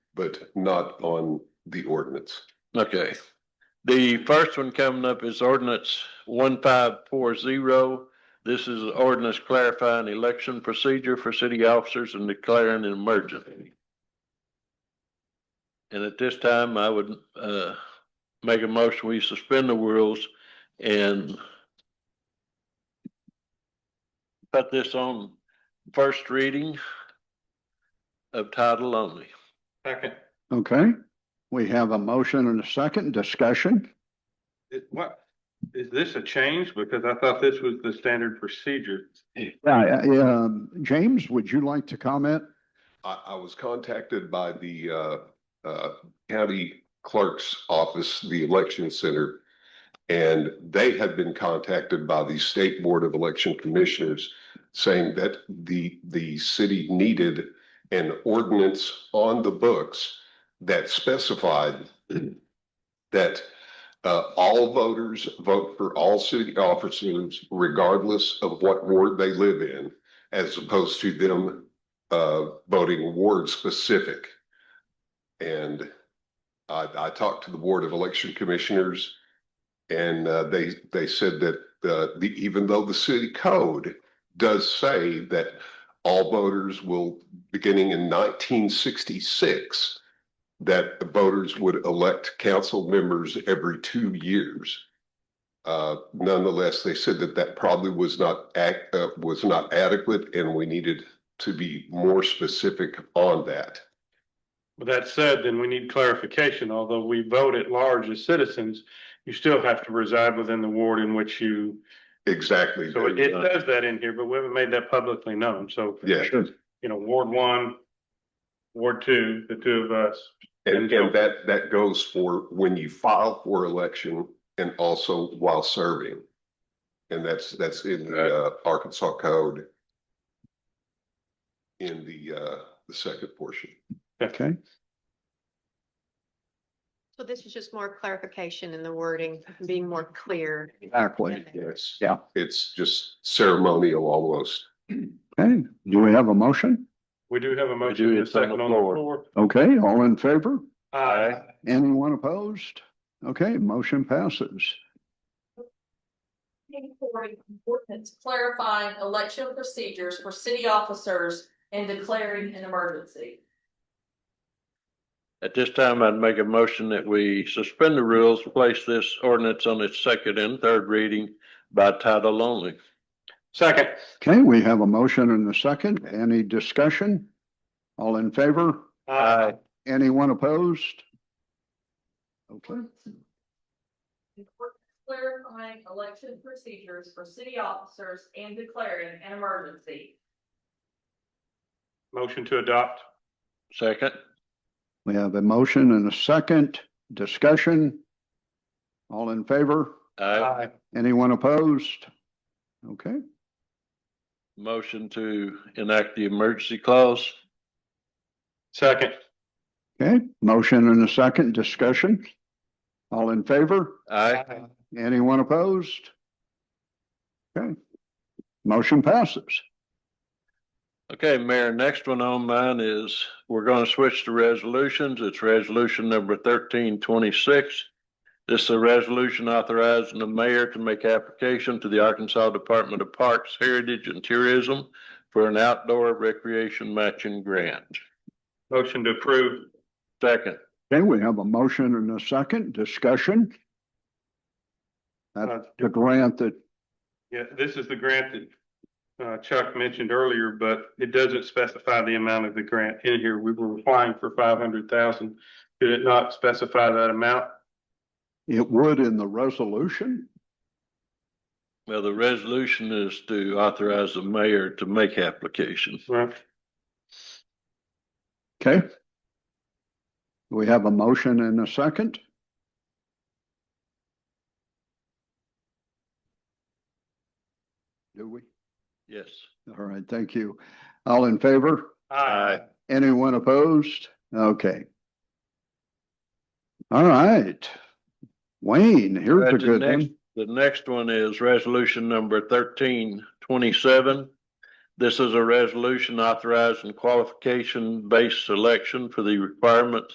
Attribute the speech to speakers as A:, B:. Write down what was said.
A: but not on the ordinance.
B: Okay. The first one coming up is ordinance one five four zero. This is ordinance clarifying election procedure for city officers and declaring an emergency. And at this time, I would uh make a motion, we suspend the rules and put this on first reading of title only.
C: Second.
D: Okay, we have a motion and a second discussion.
C: It- What, is this a change? Because I thought this was the standard procedure.
D: Uh, um, James, would you like to comment?
A: I, I was contacted by the, uh, uh, county clerk's office, the election center. And they have been contacted by the state board of election commissioners saying that the, the city needed an ordinance on the books that specified that, uh, all voters vote for all city officers regardless of what ward they live in, as opposed to them uh, voting ward specific. And I, I talked to the Board of Election Commissioners and uh, they, they said that uh, the, even though the city code does say that all voters will, beginning in nineteen sixty-six, that the voters would elect council members every two years. Uh, nonetheless, they said that that probably was not ac- uh, was not adequate and we needed to be more specific on that.
C: With that said, then we need clarification. Although we vote at large as citizens, you still have to reside within the ward in which you,
A: Exactly.
C: so it it does that in here, but we haven't made that publicly known. So,
A: Yeah,
C: you know, Ward one, Ward two, the two of us.
A: and, and that, that goes for when you file for election and also while serving. And that's, that's in the uh, Arkansas code. In the, uh, the second portion.
D: Okay,
E: So this is just more clarification in the wording, being more clear.
D: exactly.
A: Yes.
D: Yeah.
A: It's just ceremonial almost.
D: Okay, do we have a motion?
C: We do have a
B: do,
C: motion and a
B: it's on the
C: second on the
B: floor.
C: floor.
D: Okay, all in favor?
C: Aye.
D: Anyone opposed? Okay, motion passes.
F: for an ordinance clarifying election procedures for city officers and declaring an emergency.
B: At this time, I'd make a motion that we suspend the rules, place this ordinance on its second and third reading by title only.
C: Second.
D: Okay, we have a motion and a second. Any discussion? All in favor? Anyone opposed? Okay,
F: An ordinance Clarifying election procedures for city officers and declaring an emergency.
C: Motion to adopt.
B: Second,
D: we have a motion and a second discussion. All in favor?
B: I
D: Anyone opposed? Okay,
B: motion to enact the emergency clause.
C: Second.
D: okay, motion and a second discussion. All in favor?
B: Aye.
D: Anyone opposed? Okay. Motion passes.
B: Okay, Mayor, next one on mine is, we're gonna switch to resolutions. It's resolution number thirteen twenty-six. This is a resolution authorizing the mayor to make application to the Arkansas Department of Parks, Heritage and Tourism for an outdoor recreation matching grant.
C: Motion to approve.
B: Second.
D: Okay, we have a motion and a second discussion.
C: Uh,
D: That's the grant that,
C: Yeah, this is the grant that uh, Chuck mentioned earlier, but it doesn't specify the amount of the grant in here. We were applying for five hundred thousand. Did it not specify that amount?
D: it would in the resolution.
B: Well, the resolution is to authorize the mayor to make application.
C: Right.
D: Okay. We have a motion and a second. Do we?
B: Yes.
D: All right, thank you. All in favor?
B: Aye.
D: Anyone opposed? Okay. All right. Wayne, here's a
B: That's the
D: good
B: next-
D: one.
B: The next one is resolution number thirteen twenty-seven. This is a resolution authorizing qualification-based selection for the requirements